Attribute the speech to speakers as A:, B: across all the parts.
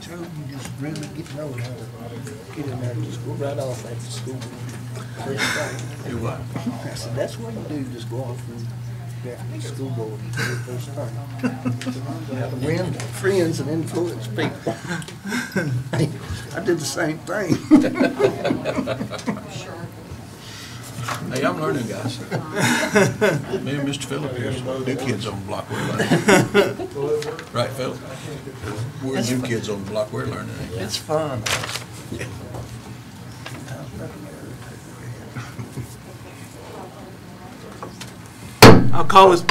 A: So you just really get your own house, get in there, just go right off after school.
B: Do what?
A: I said, that's what you do, just go off and, after school, go and do it first thing. Win friends and influence people. I did the same thing.
B: Hey, I'm learning, guys. Me and Mr. Phillip here, new kids on the block, we're learning. Right, Phil? We're new kids on the block, we're learning.
A: It's fun.
C: I'll call this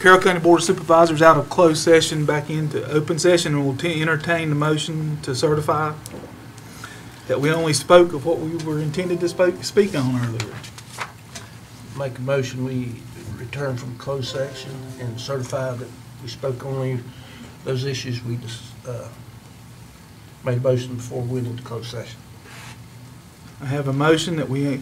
C: Carroll County Board of Supervisors out of closed session back into open session and we will te- entertain the motion to certify that we only spoke of what we were intended to spoke, speak on earlier.
D: Make a motion, we return from closed section and certify that we spoke only those issues we just, uh, made a motion before we went into closed session.
C: I have a motion that we,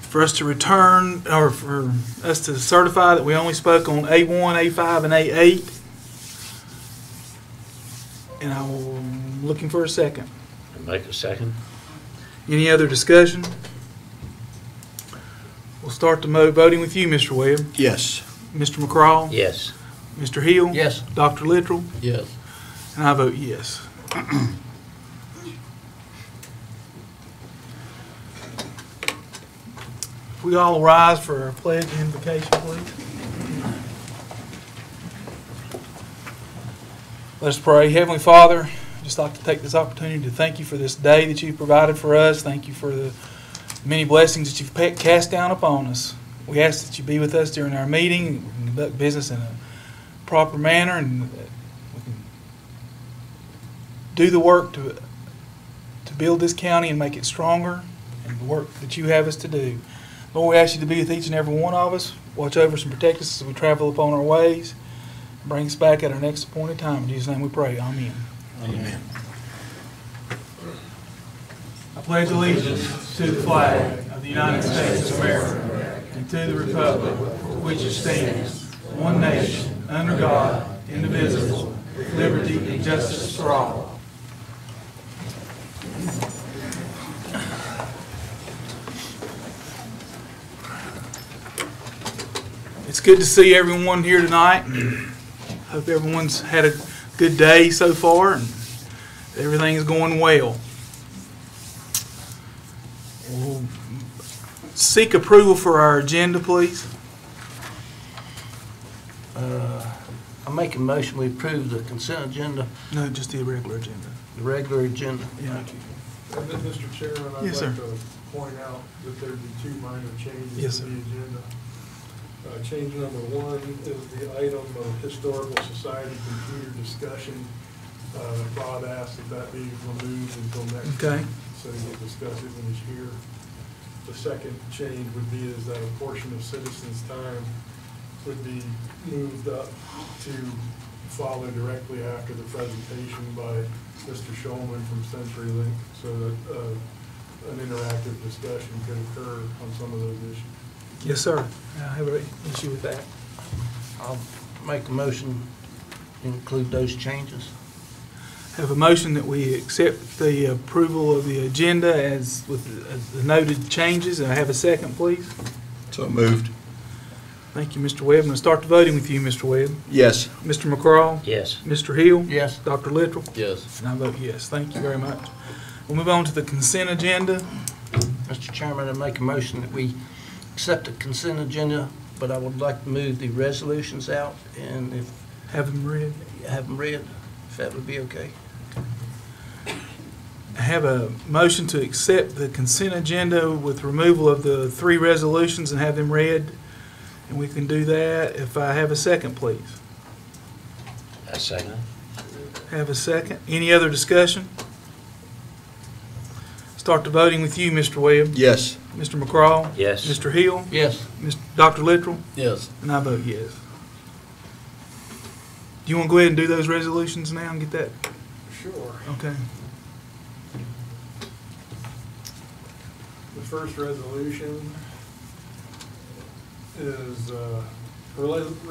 C: for us to return, or for us to certify that we only spoke on A1, A5, and A8. And I'm looking for a second.
E: Make a second?
C: Any other discussion? We'll start the mo, voting with you, Mr. Webb.
B: Yes.
C: Mr. McCraw?
E: Yes.
C: Mr. Hill?
D: Yes.
C: Dr. Littrell?
D: Yes.
C: And I vote yes. If we all rise for our pledge and invocation, please. Let's pray. Heavenly Father, I'd just like to take this opportunity to thank you for this day that you've provided for us. Thank you for the many blessings that you've pa- cast down upon us. We ask that you be with us during our meeting, and conduct business in a proper manner, and that we can do the work to, to build this county and make it stronger, and the work that you have us to do. Lord, we ask you to be with each and every one of us, watch over us and protect us as we travel upon our ways, bring us back at our next appointed time. In Jesus' name we pray, amen.
B: Amen.
C: I pledge allegiance to the flag of the United States of America and to the republic for which it stands, one nation, under God, indivisible, with liberty and justice for all. It's good to see everyone here tonight. Hope everyone's had a good day so far and everything's going well. We'll Seek approval for our agenda, please.
D: Uh, I make a motion, we approve the consent agenda,
C: No, just the regular agenda.
D: the regular agenda.
C: Yeah.
F: And then, Mr. Chairman, I'd like
C: Yes, sir.
F: to point out that there'd be two minor
C: Yes,
F: changes
C: sir.
F: to the agenda. Uh, Change number one is the item of historical society computer discussion. Uh, Bob asked that that be removed until next.
C: Okay.
F: week, So we'll discuss it when he's here. The second change would be is that a portion of citizens' time would be moved up to follow directly after the presentation by Mr. Shulman from CenturyLink so that uh, an interactive discussion could occur on some of those issues.
C: Yes, sir. I have an issue with that.
D: I'll make a motion, include those changes.
C: Have a motion that we accept the approval of the agenda as with the noted changes. And I have a second, please.
B: So moved.
C: Thank you, Mr. Webb. I'm going to start the voting with you, Mr. Webb.
B: Yes.
C: Mr. McCraw?
E: Yes.
C: Mr. Hill?
D: Yes.
C: Dr. Littrell?
E: Yes.
C: And I vote yes. Thank you very much. We'll move on to the consent agenda.
D: Mr. Chairman, I make a motion that we accept the consent agenda, but I would like to move the resolutions out, and if
C: Have them read.
D: you have them read, if that would be okay.
C: I have a motion to accept the consent agenda with removal of the three resolutions and have them read. And we can do that if I have a second, please.
E: I second.
C: Have a second. Any other discussion? Start the voting with you, Mr. Webb.
B: Yes.
C: Mr. McCraw?
E: Yes.
C: Mr. Hill?
D: Yes.
C: Mr. Dr. Littrell?
D: Yes.
C: And I vote yes. Do you want to go ahead and do those resolutions now and get that?
F: Sure.
C: Okay.
F: The first resolution is, uh, rela-